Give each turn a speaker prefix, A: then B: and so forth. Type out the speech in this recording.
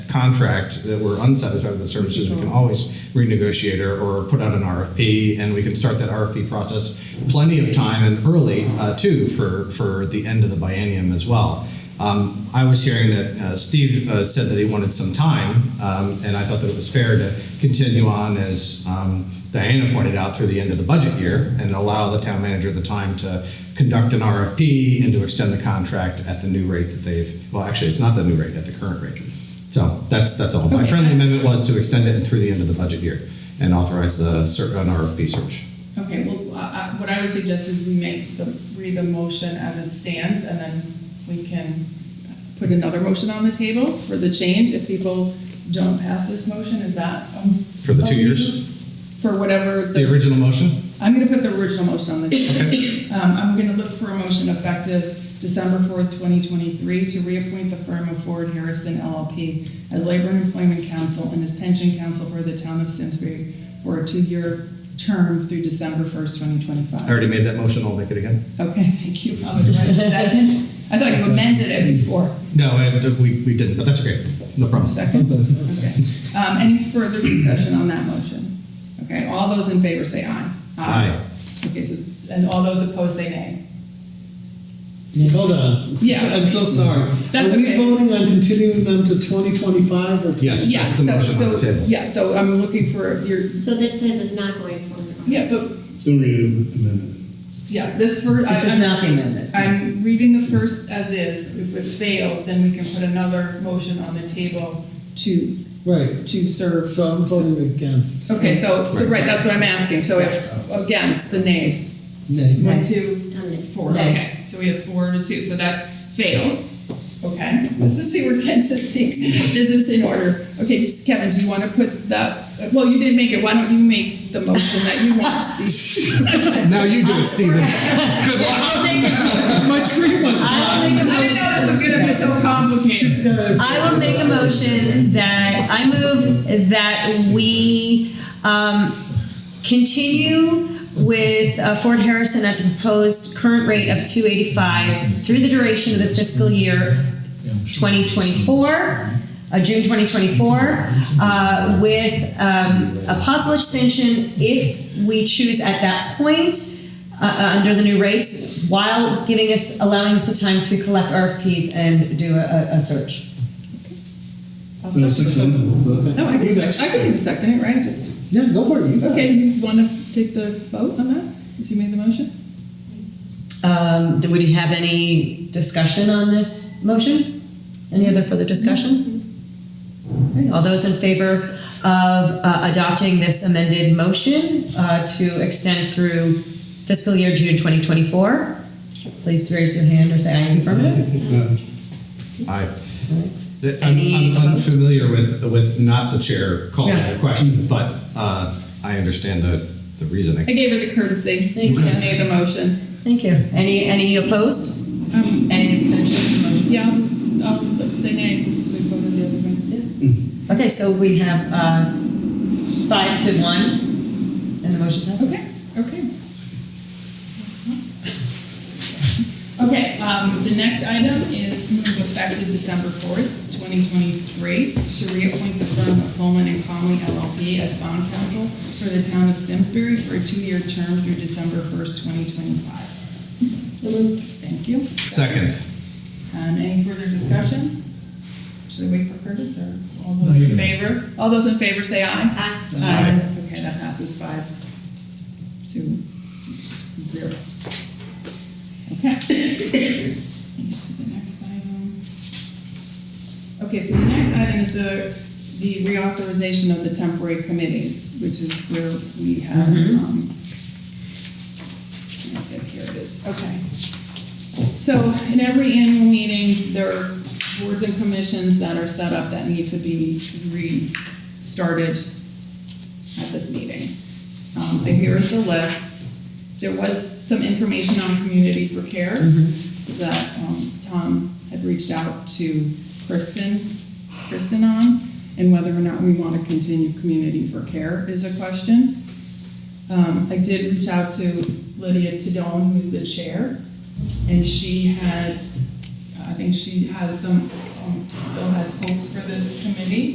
A: contract that we're unsatisfied with the services, we can always renegotiate or, or put out an RFP, and we can start that RFP process plenty of time and early, uh, too, for, for the end of the biennium as well. Um, I was hearing that uh, Steve uh, said that he wanted some time, um, and I thought that it was fair to continue on as um, Diana pointed out through the end of the budget year and allow the town manager the time to conduct an RFP and to extend the contract at the new rate that they've. Well, actually, it's not the new rate, at the current rate. So that's that's all. My friendly amendment was to extend it through the end of the budget year and authorize the cer- an RFP search.
B: Okay, well, I- I- what I would suggest is we make the, read the motion as it stands, and then we can put another motion on the table for the change if people don't pass this motion, is that? um,
A: For the two
B: okay?
A: years?
B: For whatever,
A: The
B: the
A: original motion.
B: I'm gonna put the original motion on the table. Um, I'm gonna look for a motion effective December fourth, twenty twenty-three, to reappoint the firm of Ford Harrison LLP as Labor and Employment Counsel and as Pension Counsel for the Town of Simsbury for a two-year term through December first, twenty
A: I
B: twenty-five.
A: already made that motion. I'll make it again.
B: Okay, thank you. I'll do a second. I thought you amended it before.
A: No, I, we, we didn't, but that's okay. No problem.
B: Second? Okay. Um, any further discussion on that motion? Okay, all those in favor say aye. Okay, so, and all those opposed say nay.
C: Hold on.
B: Yeah.
C: I'm so sorry.
B: That's
C: Are we
B: okay.
C: voting on continuing them to 2025 or?
A: Yes.
B: Yeah,
A: That's the
B: so-
A: motion on the
B: so-
A: table.
B: Yeah, so I'm looking for your,
D: So this says it's not going forward.
B: yeah, but,
E: Don't read it, amendment.
B: yeah, this for,
F: This is
B: I-
F: not the amendment.
B: I'm, I'm reading the first as is. If it fails, then we can put another motion on the table to,
C: Right,
B: to serve.
C: so I'm voting against.
B: Okay, so, so, right, that's what I'm asking. So if, against the nays,
C: Nay.
B: one, two,
F: Um,
D: On it.
B: Four, okay, so we have four to two, so that fails. Okay, Mrs. Seward can to see, is this in order? Okay, just Kevin, do you want to put that, well, you didn't make it, why don't you make the motion that you want, Steve?
A: Now you do it, Stephen. Good luck.
C: My screen went
F: I
C: black.
F: will
B: I
F: make a
B: didn't know this was
F: motion.
B: gonna be so complicated.
C: She's got it.
F: I will make a motion that I move that we um, continue with uh, Fort Harrison at the proposed current rate of 285 through the duration of the fiscal year 2024, uh, June 2024, uh, with um, a possible extension if we choose at that point uh, uh, under the new rates, while giving us, allowing us the time to collect RFPs and do a, a- a search.
B: I'll
E: No,
B: second
E: six
B: the-
E: months.
B: No, I can, sec- I can second it, right, just,
C: Yeah, go for it. You got it.
B: okay, you want to take the vote on that, since you made the motion?
F: Um, do- would you have any discussion on this motion? Any other further discussion? Okay, All those in favor of uh, adopting this amended motion uh, to extend through fiscal year June 2024, please raise your hand or say aye in the affirmative.
A: Aye. I'm,
F: Any
A: I'm
F: opposed?
A: unfamiliar with, with not the chair calling
F: Yeah.
A: the question, but, uh, I understand the, the reasoning.
B: I gave her the courtesy,
F: Thank you.
B: she made the motion.
F: Thank you. Any, any opposed?
B: Um,
F: Any abstentions? Motion
B: Yeah, I'll
F: passes.
B: just, I'll say nay, just so we voted the other way. Yes.
F: Okay, so we have uh, five to one, and the motion passes.
B: Okay, okay. Okay, um, the next item is move effective December fourth, twenty twenty-three, to reappoint the firm of Coleman and Conley LLP as bond counsel for the town of Simsbury for a two-year term through December first, twenty twenty-five. Thank you.
A: Second,
B: Um, any further discussion? Should I wait for Curtis or all those in favor? All those in favor say aye.
D: Aye.
B: Aye. Uh, Okay, that passes five to zero. Okay. To the next item. Okay, so the next item is the, the reauthorization of the temporary committees, which is where we have, um, I think here it is, okay. So in every annual meeting, there are boards and commissions that are set up that need to be restarted at this meeting. Um, but here is the list. There was some information on community for care that, um, Tom had reached out to Kristen, Kristen on, and whether or not we want to continue community for care is a question. Um, I did reach out to Lydia Tadone, who's the chair, and she had, I think she has some, um, still has hopes for this committee.